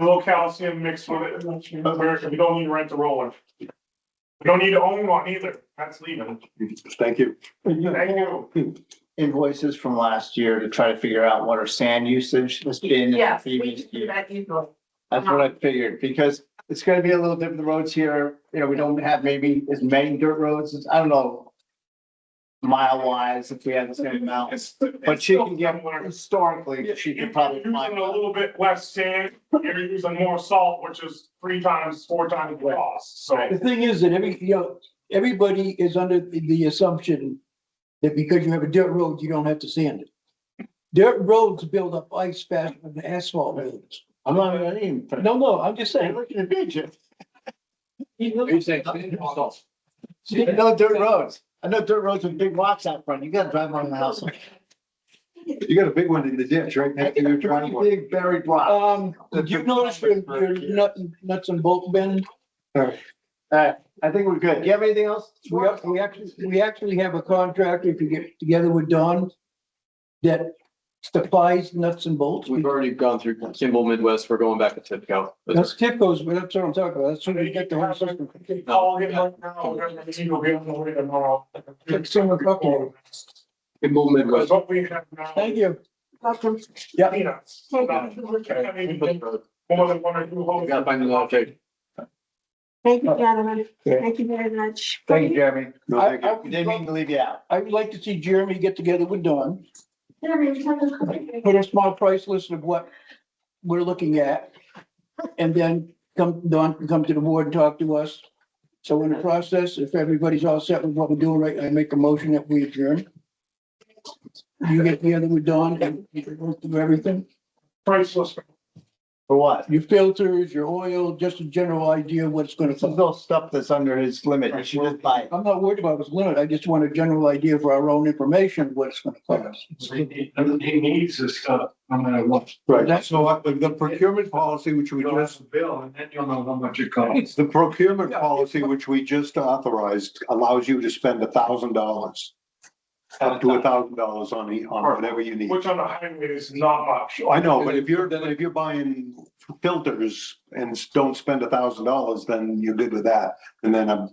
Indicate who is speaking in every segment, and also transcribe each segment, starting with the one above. Speaker 1: little calcium mixed with it, America, we don't need to rent a roller. We don't need to own one either, that's leaving.
Speaker 2: Thank you.
Speaker 1: Thank you.
Speaker 3: invoices from last year to try to figure out what our sand usage has been. in the
Speaker 4: Yes, we
Speaker 3: previous
Speaker 4: can do
Speaker 3: year.
Speaker 4: that easily.
Speaker 3: That's what I figured, because it's gonna be a little different, the roads here, you know, we don't have maybe as many dirt roads, as- I don't know. Mile wise, if we had the same amount,
Speaker 1: It's-
Speaker 3: but she can
Speaker 1: it's
Speaker 3: get,
Speaker 1: still somewhere.
Speaker 3: historically, she
Speaker 1: You're
Speaker 3: can probably
Speaker 1: using a
Speaker 3: find.
Speaker 1: little bit less sand, you're using more salt, which is three times, four times the cost, so.
Speaker 5: The thing is that every, you know, everybody is under the assumption that because you have a dirt road, you don't have to sand it. Dirt roads build up ice faster than asphalt roads.
Speaker 3: I'm not, I didn't. even-
Speaker 5: No, no, I'm just
Speaker 3: Hey,
Speaker 5: saying.
Speaker 3: look at the picture.
Speaker 5: You say sand or salt?
Speaker 3: I know dirt roads, I know dirt roads with big rocks out front, you gotta drive around the house.
Speaker 2: You got a big one in the ditch right next to your
Speaker 3: Pretty
Speaker 2: driveway.
Speaker 3: Big buried rock.
Speaker 5: Um, did you notice your, your nut- nuts and bolts bend?
Speaker 3: Alright, I think we're good, you have anything else?
Speaker 5: We, ac- we actually, we actually have a contractor, if you get together with Don, that supplies nuts and bolts.
Speaker 6: We've already gone through Kimball Midwest, we're going back to Tipco.
Speaker 5: That's Tipco's, but that's what I'm talking about. That's what we get the whole system.
Speaker 1: Call him right now, we're gonna need to be on the way tomorrow.
Speaker 5: Like someone fucking-
Speaker 6: Kimball
Speaker 1: Because
Speaker 6: Midwest.
Speaker 1: what we have now.
Speaker 5: Thank you.
Speaker 4: Welcome.
Speaker 5: Yeah.
Speaker 1: Peanuts.
Speaker 4: Take
Speaker 1: Not-
Speaker 4: it. We'll take
Speaker 1: I mean,
Speaker 6: We gotta
Speaker 1: More than one or two holes.
Speaker 6: find the logic.
Speaker 4: Thank you, gentlemen.
Speaker 3: Yeah.
Speaker 4: Thank you very much.
Speaker 3: Thank you, Jeremy,
Speaker 2: No,
Speaker 5: I-
Speaker 2: thank
Speaker 5: I
Speaker 2: you.
Speaker 5: would
Speaker 3: didn't mean
Speaker 5: love-
Speaker 3: to leave you out.
Speaker 5: I would like to see Jeremy get together with Don,
Speaker 4: Jeremy, we have a cookie.
Speaker 5: put a small price list of what we're looking at. And then come, Don can come to the board and talk to us. So in the process, if everybody's all set with what we're doing right, I make a motion that we adjourn. You get together with Don and you can go through everything,
Speaker 1: Priceless.
Speaker 3: For what?
Speaker 5: your filters, your oil, just a general idea of what it's gonna
Speaker 3: This is
Speaker 5: cost.
Speaker 3: all stuff that's under his limit, you should just buy it.
Speaker 5: I'm not worried about his limit. I just want a general idea for our own information, what it's gonna cost.
Speaker 7: He needs this stuff, no matter what.
Speaker 2: Right,
Speaker 5: That's-
Speaker 2: so what- the- the procurement policy, which we
Speaker 7: You'll have
Speaker 2: just,
Speaker 7: a bill and then you'll know how much it costs.
Speaker 2: the procurement policy, which we just authorized, allows you to spend a thousand dollars. Up to a thousand dollars on, e- on whatever you need.
Speaker 1: Which on the highway is not much.
Speaker 2: I know, but if you're, but if you're buying filters and don't spend a thousand dollars, then you're good with that. And then a,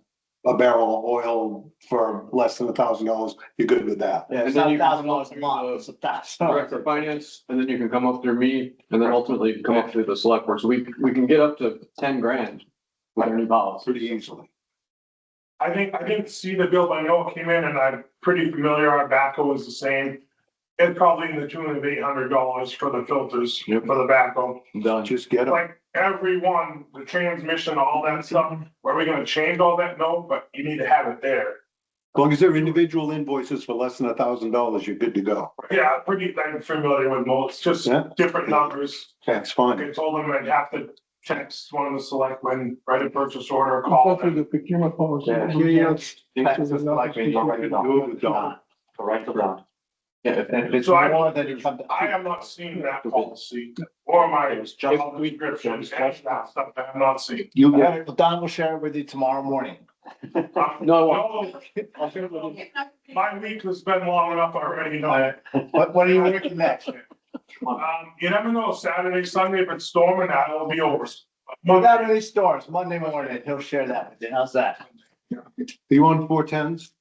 Speaker 2: a barrel of oil for less than a thousand dollars, you're good with that.
Speaker 3: Yeah, it's
Speaker 6: And then
Speaker 3: not
Speaker 6: you
Speaker 3: a
Speaker 6: can
Speaker 3: thousand dollars a
Speaker 6: through
Speaker 3: month,
Speaker 6: the-
Speaker 3: it's a thousand.
Speaker 6: Director of Finance, and then you can come up through me, and then ultimately you can come up through the select board. So we, we can get up to ten grand with our new policy.
Speaker 2: Pretty easily.
Speaker 1: I think, I didn't see the bill, but I know it came in and I'm pretty familiar, our backhoe is the same. It's probably in the tune of eight hundred dollars for the filters, for
Speaker 6: Yep.
Speaker 1: the backhoe.
Speaker 6: Done.
Speaker 2: Just get them.
Speaker 1: Like everyone, the transmission, all that stuff, are we gonna change all that? No, but you need to have it there.
Speaker 2: As long as they're individual invoices for less than a thousand dollars, you're good to go.
Speaker 1: Yeah, pretty, I'm familiar with most, just
Speaker 2: Yeah.
Speaker 1: different numbers.
Speaker 2: That's fine.
Speaker 1: I told them I'd have to text one of the selectmen, write a purchase order,
Speaker 5: Go
Speaker 1: call
Speaker 5: through
Speaker 1: them.
Speaker 5: the procurement policy.
Speaker 6: Yeah. Yeah, if, if it's.
Speaker 1: So I-
Speaker 3: More than it comes.
Speaker 1: I have not seen that policy or my job
Speaker 6: If we-
Speaker 1: description, and that stuff that I'm not seeing.
Speaker 2: You
Speaker 3: All
Speaker 2: get it.
Speaker 3: right, well, Don will share it with you tomorrow morning.
Speaker 6: No,
Speaker 1: No, My week has been long enough already, you know.
Speaker 3: What, what are you working next?
Speaker 1: Um, you never know, Saturday, Sunday, if it's storming out, it'll be over. Monday,
Speaker 3: Not really stores, Monday morning, he'll share that with you, how's that?
Speaker 2: You on four tens?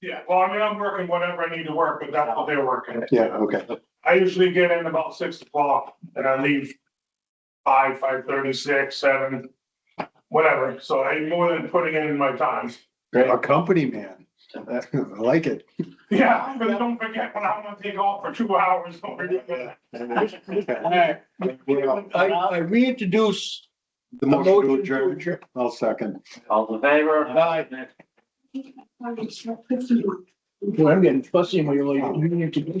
Speaker 1: yeah, well, I mean, I'm working whatever I need to work, but that's what they're working.
Speaker 2: Yeah, okay.
Speaker 1: I usually get in about six o'clock and I leave five, five thirty, six, seven, whatever. So I'm more than putting in my time.
Speaker 2: A company man. I like it.
Speaker 1: Yeah, but don't forget when I'm gonna take off for two hours. don't forget that.
Speaker 2: The
Speaker 3: Alright.
Speaker 5: I, I reintroduce the
Speaker 2: motion to
Speaker 5: motion to
Speaker 2: adjourn,
Speaker 5: adjourn.
Speaker 2: I'll second.
Speaker 6: All in favor?
Speaker 5: Well, I'm getting fussy when you're like, you need to do